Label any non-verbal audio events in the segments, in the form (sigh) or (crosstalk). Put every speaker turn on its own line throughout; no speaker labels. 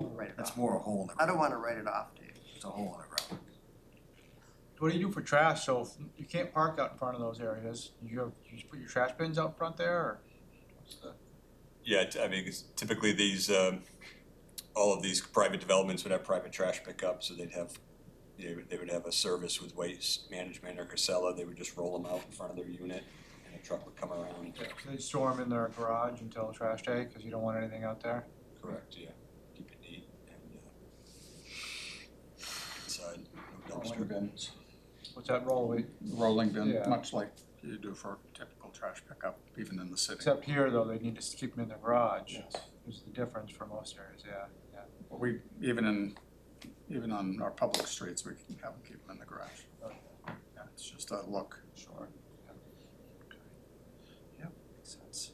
write it
That's
off.
more a hole in the.
I don't
ground.
wanna write it off, Dave.
It's a hole in the ground.
What do you do for trash? So if you can't park out in front of those areas. You have, you just put your trash bins out front there or? what's the-
Yeah, t- I mean, 'cause typically these, um, all of these private developments would have private trash pickup, so they'd have, they would, they would have a service with waste management or Casella, they would just roll them out in front of their unit, and a truck would come around.
They store them in their garage until trash day because you don't want anything out there.
Correct, yeah, keep it neat and, uh, inside, no
Rolling
dumpster.
bins,
What's that roll? We-
rolling bin,
Yeah.
much like you do for typical trash pickup, even in the city.
Except here though, they need to keep them in the garage.
Yes.
Is the difference for most areas, yeah, yeah.
But We, even in, even on our public streets, we can have them keep them in the garage.
Okay.
Yeah, it's just a look.
Sure.
Makes sense.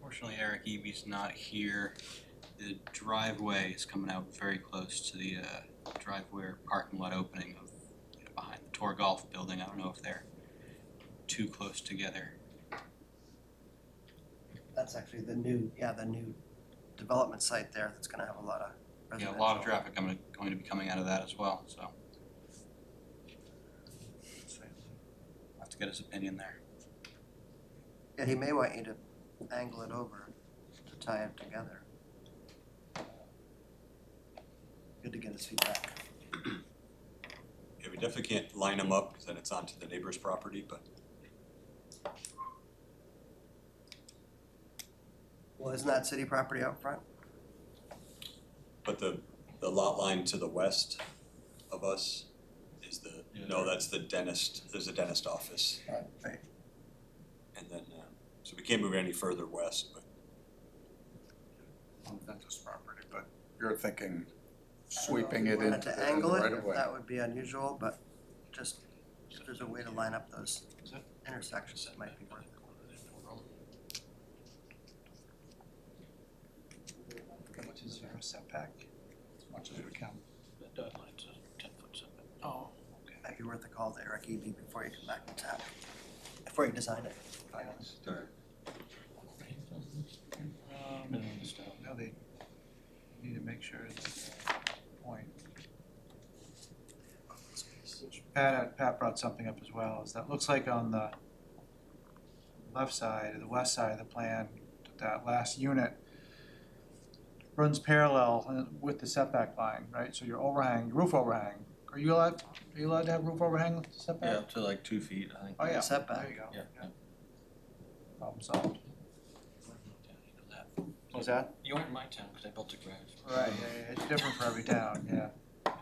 Fortunately, Eric Eby's not here. The driveway is coming out very close to the uh, driveway or parking lot opening of, you know, behind the Tor Golf building. I don't know if they're too close together.
That's actually the new, yeah, the new development site there that's gonna have a lot of
Yeah,
residential.
a lot of traffic coming, going to be coming out of that as well, so. I'll Have to get his opinion there.
Yeah, he may want you to angle it over to tie it together. Good to get his feedback.
Yeah, we definitely can't line them up, cause then it's onto the neighbor's property, but
Well, isn't that city property out front?
But the, the lot line to the west of us is the, no, that's the dentist, there's a dentist office.
Right.
And then, uh, so we can't move any further west, but
On Ventus property, but you're thinking sweeping it into
Wanted
the
to angle
right
it,
of
if
way.
that would be unusual, but just, if there's a way to line up those intersections, it might be worth it.
How much is our setback? As much as we can.
Might be worth a call to Eric Eby before you come back to town, before you design it.
Now Um, they need to make sure that the point. Pat, had- Pat brought something up as well, is that looks like on the left side, or the west side of the plan, that last unit runs parallel uh, with the setback line, right? So your overhang, roof overhang, are you allowed, are you allowed to have roof overhang with the setback?
Yeah, up to like two feet, I think.
Oh, yeah,
Setback.
there you go.
Yeah, yeah.
Problem solved. Was that?
You weren't in my town, cause I built a garage.
Right, yeah, yeah, it's different for every town, yeah.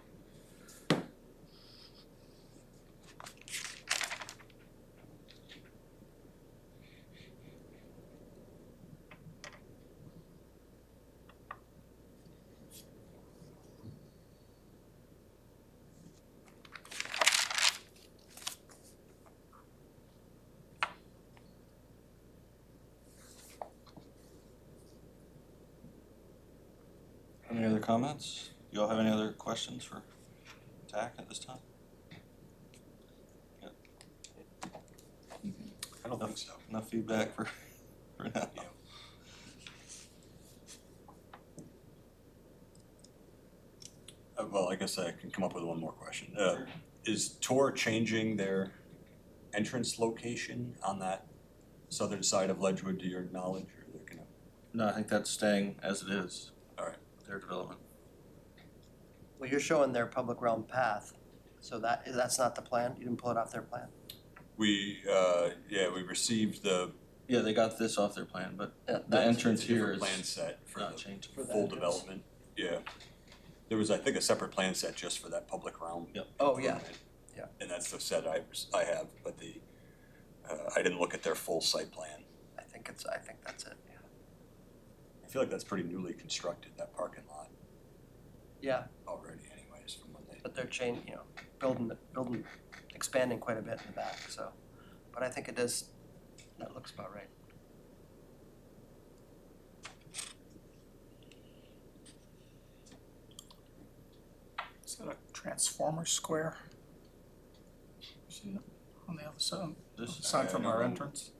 Any other comments? You all have any other questions for TAC at this time? Yeah.
I don't think so.
Enough feedback for, (laughs) for now.
Uh, well, I guess I can come up with one more question. Uh, is Tor changing their entrance location on that southern side of Ledgewood to your knowledge, or they're gonna?
No, I think that's staying as it is.
Alright.
Their development.
Well, you're showing their public realm path, so that, that's not the plan, you didn't pull it off their plan?
We, uh, yeah, we received the.
Yeah, they got this off their plan, but the
that's-
entrance
it's a different
here is
Plan set for
not
the
changing.
For the
full
entrance.
development, yeah. There was, I think, a separate plan set just for that public realm.
Yep.
Oh, yeah.
improvement.
Yeah.
And that's the set I, I have, but the, uh, I didn't look at their full site plan.
I think it's, I think that's it, yeah.
I feel like that's pretty newly constructed, that parking lot
Yeah,
already anyways, from when they,
but they're changing, you know, building, building, expanding quite a bit in the back, so, but I think it is, that looks about right.
Is that a transformer square? See it on the other side,
This is,
aside from our
no.
entrance?